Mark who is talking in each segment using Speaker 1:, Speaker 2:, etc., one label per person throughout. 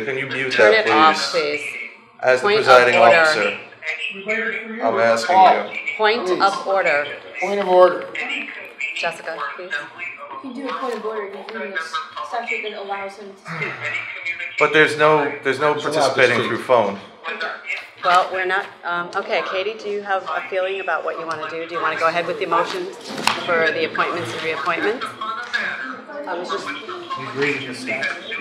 Speaker 1: Can you mute
Speaker 2: Turn it
Speaker 1: that,
Speaker 2: off,
Speaker 1: please?
Speaker 2: please.
Speaker 1: As the
Speaker 2: Point of
Speaker 1: presiding
Speaker 2: order.
Speaker 1: officer, I'm asking
Speaker 3: Off.
Speaker 1: you.
Speaker 2: Point of order,
Speaker 3: Point of order.
Speaker 2: Jessica, please.
Speaker 4: You do a point of order, you read a statute that allows him to speak.
Speaker 1: But there's no, there's no participating
Speaker 3: speak.
Speaker 1: through phone.
Speaker 2: Well, we're not, um, okay, Katie, do you have a feeling about what you want to do? Do you want to go ahead with the motion for the appointments and reappointments? I was just,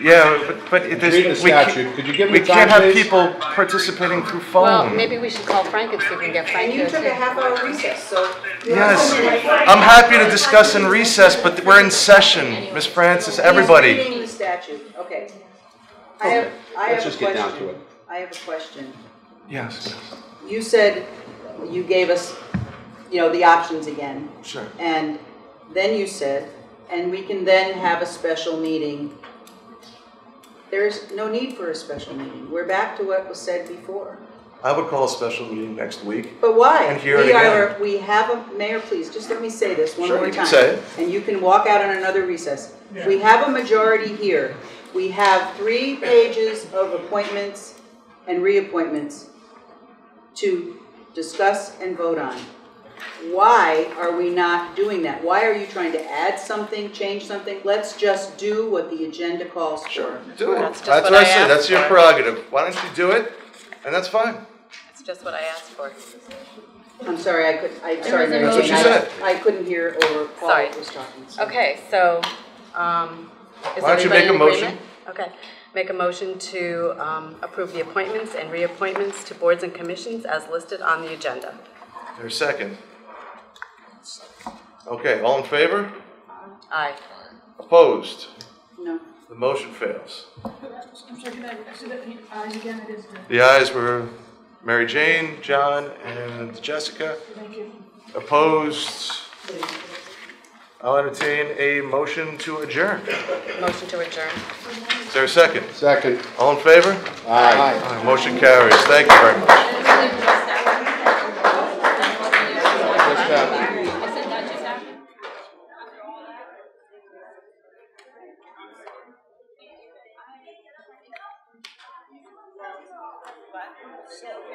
Speaker 1: Yeah, but, but it- there's.
Speaker 3: Read the
Speaker 1: we can't-
Speaker 3: statute. Could you give me
Speaker 1: We can't
Speaker 3: time,
Speaker 1: have
Speaker 3: please?
Speaker 1: people participating through
Speaker 2: well,
Speaker 1: phone.
Speaker 2: maybe we should call Frank and see if we can get Frank
Speaker 5: And
Speaker 2: here
Speaker 5: you took a
Speaker 2: too.
Speaker 5: half hour recess, so.
Speaker 1: Yes, I'm happy to discuss in recess, but we're in session, Miss Francis,
Speaker 5: He's
Speaker 1: everybody.
Speaker 5: reading the statute, okay. I have, I
Speaker 3: let's
Speaker 5: have a
Speaker 3: just get down to it.
Speaker 5: question. I have a question.
Speaker 1: Yes,
Speaker 5: You said, you gave us, you know, the options again.
Speaker 1: sure.
Speaker 5: And then you said, and we can then have a special meeting. There's no need for a special meeting. We're back to what was said before.
Speaker 1: I would call a special meeting next week.
Speaker 5: But why?
Speaker 1: And hear it
Speaker 5: We are-
Speaker 1: again.
Speaker 5: We have a, Mayor, please, just let me say this one
Speaker 1: Sure,
Speaker 5: more
Speaker 1: you
Speaker 5: time.
Speaker 1: can say it.
Speaker 5: And you can walk out on another recess. We have a majority here. We have three pages of appointments and reappointments to discuss and vote on. Why are we not doing that? Why are you trying to add something, change something? Let's just do what the agenda calls for.
Speaker 1: Do it.
Speaker 2: That's just
Speaker 1: That's
Speaker 2: what
Speaker 1: what I
Speaker 2: I
Speaker 1: said,
Speaker 2: asked
Speaker 1: that's your
Speaker 2: for.
Speaker 1: prerogative. Why don't you do it? And that's fine.
Speaker 2: It's just what I asked for.
Speaker 5: I'm sorry, I could, I'm sorry, Mary
Speaker 1: That's what
Speaker 5: Jane,
Speaker 1: she
Speaker 5: I,
Speaker 1: said.
Speaker 5: I couldn't hear or
Speaker 2: Sorry.
Speaker 5: Paul was talking. so-
Speaker 2: Okay, so, um, is
Speaker 1: Why don't you
Speaker 2: everybody
Speaker 1: make
Speaker 2: in
Speaker 1: a motion?
Speaker 2: agreement? Okay, make a motion to, um, approve the appointments and reappointments to boards and commissions as listed on the agenda.
Speaker 1: There's a second. Okay, all in favor?
Speaker 2: Aye.
Speaker 1: Opposed?
Speaker 5: No.
Speaker 1: The motion fails.
Speaker 6: I'm sorry, can I, so that, the eyes again, it is, the-
Speaker 1: The ayes were Mary Jane, John, and Jessica.
Speaker 6: thank you.
Speaker 1: Opposed? I'll entertain a motion to adjourn.
Speaker 2: Motion to adjourn.
Speaker 1: Is there a second?
Speaker 3: Second.
Speaker 1: All in favor?
Speaker 3: Aye.
Speaker 1: Aye, Motion carries. Thank you very much.
Speaker 3: Just that.